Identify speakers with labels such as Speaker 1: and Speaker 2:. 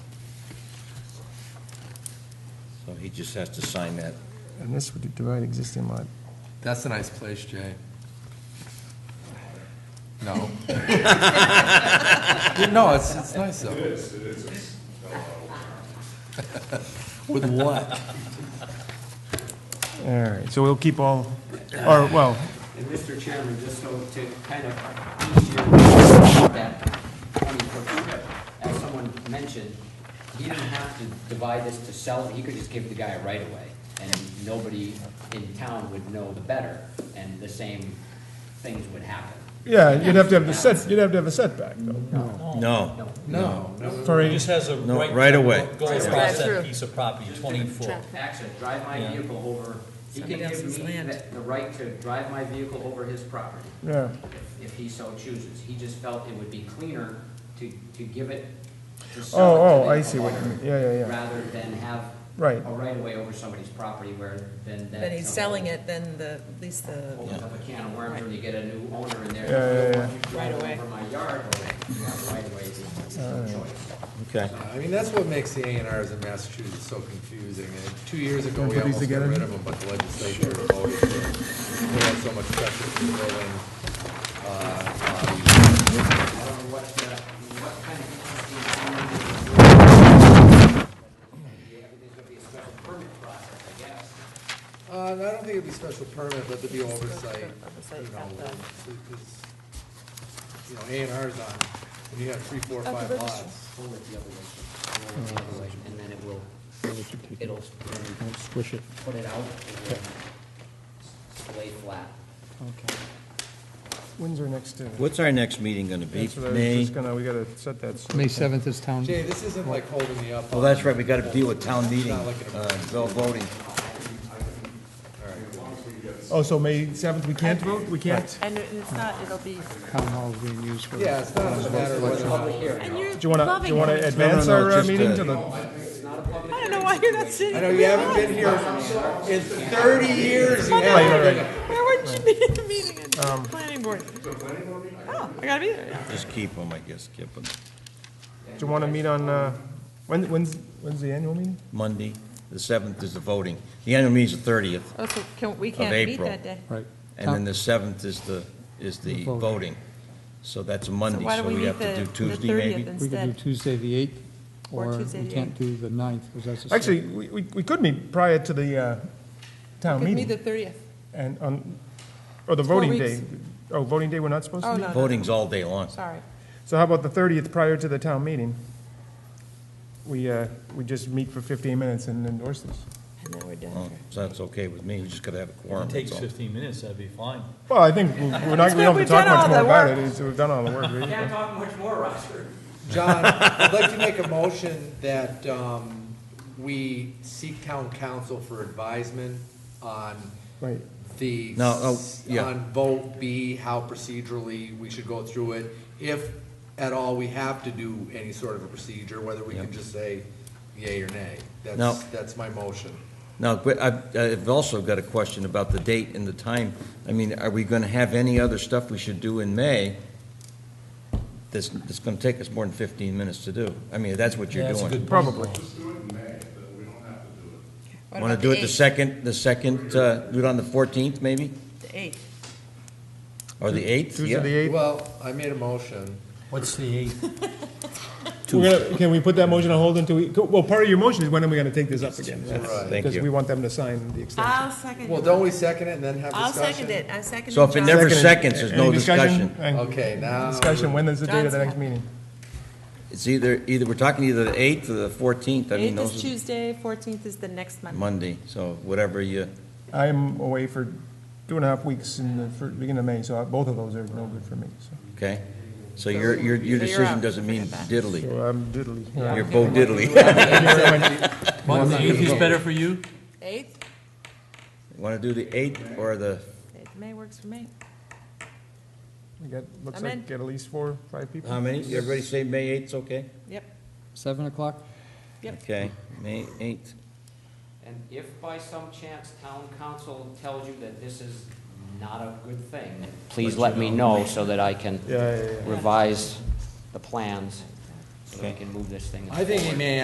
Speaker 1: So he just has to sign that.
Speaker 2: And this would divide existing lot.
Speaker 3: That's a nice place, Jay. No. No, it's, it's nice though. It is, it is. With what?
Speaker 2: All right, so we'll keep all, or, well,
Speaker 4: And Mr. Chairman, just so to kind of each year, that 20-foot, as someone mentioned, he didn't have to divide this to sell it, he could just give the guy a right away, and nobody in town would know the better, and the same things would happen.
Speaker 2: yeah, you'd have to have the set, you'd have to have a setback, though.
Speaker 1: No,
Speaker 3: No.
Speaker 2: For
Speaker 5: He
Speaker 2: a,
Speaker 5: just has a
Speaker 1: No,
Speaker 5: right.
Speaker 1: right
Speaker 5: to
Speaker 1: away.
Speaker 5: Go
Speaker 6: Just
Speaker 5: across
Speaker 6: drive
Speaker 5: that
Speaker 6: through.
Speaker 5: piece of property, twenty foot.
Speaker 4: Actually, drive my vehicle over, he can
Speaker 6: Somebody
Speaker 4: give
Speaker 6: else's
Speaker 4: me
Speaker 6: land.
Speaker 4: the- the right to drive my vehicle over his property.
Speaker 2: yeah,
Speaker 4: if- if he so chooses. He just felt it would be cleaner to, to give it, to
Speaker 2: Oh,
Speaker 4: sell it to
Speaker 2: oh,
Speaker 4: the
Speaker 2: I see what you mean.
Speaker 4: owner
Speaker 2: Yeah, yeah, yeah.
Speaker 4: Rather than have
Speaker 2: Right.
Speaker 4: a right-of-way over somebody's property where then that.
Speaker 6: But he's selling it, then the, at least the,
Speaker 4: Opens up a can of worms when you get a new owner in there.
Speaker 2: Yeah, yeah, yeah.
Speaker 4: Once you drive
Speaker 6: Right away.
Speaker 4: Over my yard, or you have right-of-way, it's your choice.
Speaker 1: okay.
Speaker 3: I mean, that's what makes the A and Rs in Massachusetts so confusing. And two years ago,
Speaker 2: Wanna
Speaker 3: we
Speaker 2: put these
Speaker 3: almost got
Speaker 2: together?
Speaker 3: rid of them, but the legislature voted to, we had so much pressure from the building. uh, bodies.
Speaker 4: I don't know what, the- what kind of interesting. Everything's gonna be a special permit process, I guess.
Speaker 3: Uh, and I don't think it'd be special permit, but there'd be oversight,
Speaker 6: Oversight
Speaker 3: you know,
Speaker 6: at the-
Speaker 3: because, you know, A and Rs on, when you have three, four,
Speaker 6: the
Speaker 3: five
Speaker 6: registry.
Speaker 3: lots.
Speaker 4: Roll it the other way, roll it the other way, and then it will, it'll,
Speaker 7: Squish it.
Speaker 4: put it out, and then lay flat.
Speaker 2: Windsor next to.
Speaker 1: What's our next meeting gonna be?
Speaker 2: That's what I was
Speaker 1: May?
Speaker 2: just gonna, we gotta set that. so-
Speaker 7: May 7th is town.
Speaker 3: Jay, this isn't like holding me up.
Speaker 1: Well,
Speaker 3: on-
Speaker 1: Oh, that's right, we gotta deal with town meeting, uh, bill voting.
Speaker 2: Oh, so May seventh, we can't vote? We can't?
Speaker 8: And it- it's not, it'll be,
Speaker 7: Town hall is being used for.
Speaker 3: Yeah, it's not a matter of whether or not.
Speaker 8: and you're
Speaker 2: Do you wanna, do you
Speaker 8: loving
Speaker 2: wanna
Speaker 8: it.
Speaker 2: advance
Speaker 1: No, no, no,
Speaker 2: our uh,
Speaker 1: just,
Speaker 2: meeting
Speaker 1: uh,
Speaker 2: to the,
Speaker 8: I don't know why you're not sitting.
Speaker 3: I know you haven't been here in thirty years, you
Speaker 2: right,
Speaker 3: haven't
Speaker 2: Oh, right, Um,
Speaker 3: been.
Speaker 2: right.
Speaker 8: Where would you be at the meeting and planning board? Oh, I gotta be there. yeah.
Speaker 1: Just keep them, I guess, keep them.
Speaker 2: do you wanna meet on, uh, when, when's, when's the annual meeting?
Speaker 1: Monday, the seventh is the voting. The annual meeting's the thirtieth,
Speaker 8: Oh, so can, we can't meet
Speaker 1: April.
Speaker 8: that day.
Speaker 7: Right.
Speaker 1: and then the seventh is the, is the
Speaker 7: The voting.
Speaker 1: voting. So that's a
Speaker 8: So
Speaker 1: Monday,
Speaker 8: why
Speaker 1: so
Speaker 8: don't we
Speaker 1: we
Speaker 8: meet
Speaker 1: have to
Speaker 8: the,
Speaker 1: do
Speaker 8: the
Speaker 1: Tuesday
Speaker 8: thirtieth
Speaker 1: maybe?
Speaker 7: We could do
Speaker 8: instead?
Speaker 7: Tuesday, the 8th,
Speaker 8: Or
Speaker 7: or
Speaker 8: Tuesday,
Speaker 7: we
Speaker 8: the
Speaker 7: can't do the 9th, because that's a. Saturday.
Speaker 2: Actually, we, we we could meet prior to the, uh, town
Speaker 8: Could be the
Speaker 2: meeting
Speaker 8: thirtieth.
Speaker 2: and on, or the
Speaker 8: Four
Speaker 2: voting
Speaker 8: weeks.
Speaker 2: day. Oh, voting day, we're not supposed
Speaker 8: Oh,
Speaker 2: to meet?
Speaker 8: no, no,
Speaker 1: Voting's all day long.
Speaker 8: sorry.
Speaker 2: So how about the thirtieth prior to the town meeting? We, uh, we just meet for fifteen minutes and endorse this.
Speaker 8: And then we're done.
Speaker 1: Oh, So that's okay with me, we just gotta have a quorum,
Speaker 5: Takes
Speaker 1: that's all.
Speaker 5: fifteen minutes, that'd be fine.
Speaker 2: Well, I think we- we're not, we don't have to
Speaker 8: We've
Speaker 2: talk much
Speaker 8: done all
Speaker 2: more
Speaker 8: the
Speaker 2: about it,
Speaker 8: work.
Speaker 2: It's- we've done all the work. really.
Speaker 4: Can't talk much more, Roger.
Speaker 3: John, I'd like to make a motion that um, we seek town council for advisement on
Speaker 2: Right,
Speaker 3: the,
Speaker 1: No, oh, yeah.
Speaker 3: on vote B, how procedurally we should go through it, if at all we have to do any sort of a procedure, whether we can just say yay or nay.
Speaker 1: No.
Speaker 3: That's, that's my motion.
Speaker 1: Now, but I've, I've also got a question about the date and the time. I mean, are we gonna have any other stuff we should do in May that's, that's gonna take us more than fifteen minutes to do? I mean, that's what you're
Speaker 5: That's a
Speaker 1: doing.
Speaker 5: good
Speaker 2: probably.
Speaker 6: what
Speaker 1: Wanna
Speaker 6: about
Speaker 1: do it the
Speaker 6: 8th?
Speaker 1: second, the second, uh, do it on the fourteenth, maybe?
Speaker 6: The eighth.
Speaker 1: Or the eighth?
Speaker 2: Tuesday the eighth.
Speaker 3: Well, I made a motion.
Speaker 5: What's the eight?
Speaker 2: We're gonna, can we put that motion on hold until we, well, part of your motion is when are we gonna take this up again?
Speaker 3: Right.
Speaker 1: Thank
Speaker 2: Because we
Speaker 1: you.
Speaker 2: want them to sign the extension.
Speaker 8: I'll second.
Speaker 3: Well, don't we second it and then have
Speaker 6: I'll
Speaker 3: discussion?
Speaker 6: second it, I second
Speaker 1: So if it
Speaker 6: John's-
Speaker 1: never
Speaker 2: Second.
Speaker 1: seconds, there's no
Speaker 2: Any
Speaker 1: discussion.
Speaker 2: And
Speaker 3: Okay, now.
Speaker 2: Discussion, when is the date of the
Speaker 6: John's-
Speaker 2: next meeting?
Speaker 1: It's either, either, we're talking either the eighth or the fourteenth, I mean,
Speaker 8: Eighth is
Speaker 1: those are
Speaker 8: Tuesday, fourteenth is the next Monday.
Speaker 1: Monday, so whatever you,
Speaker 2: I'm away for two and a half weeks in the, fir- beginning of May, so both of those are no good for me, so.
Speaker 1: okay? So your, your, your
Speaker 6: So you're
Speaker 1: decision
Speaker 6: out.
Speaker 1: doesn't mean diddly,
Speaker 2: So I'm diddly. Yeah.
Speaker 1: you're Bo diddly.
Speaker 5: Monday is better for you?
Speaker 6: Eighth?
Speaker 1: Want to do the 8th or the,
Speaker 8: Eighth of May works for me.
Speaker 2: We got, looks
Speaker 8: I'm in.
Speaker 2: like, get at least four, five people.
Speaker 1: how many? Everybody say May 8th's okay?
Speaker 8: Yep.
Speaker 7: 7 o'clock?
Speaker 8: Yep.
Speaker 1: Okay, May 8th.
Speaker 4: And if by some chance town council tells you that this is not a good thing, please let me know so that I can
Speaker 2: Yeah, yeah, yeah.
Speaker 4: revise the plans, so that we
Speaker 1: Okay.
Speaker 4: can move this thing
Speaker 3: I think he may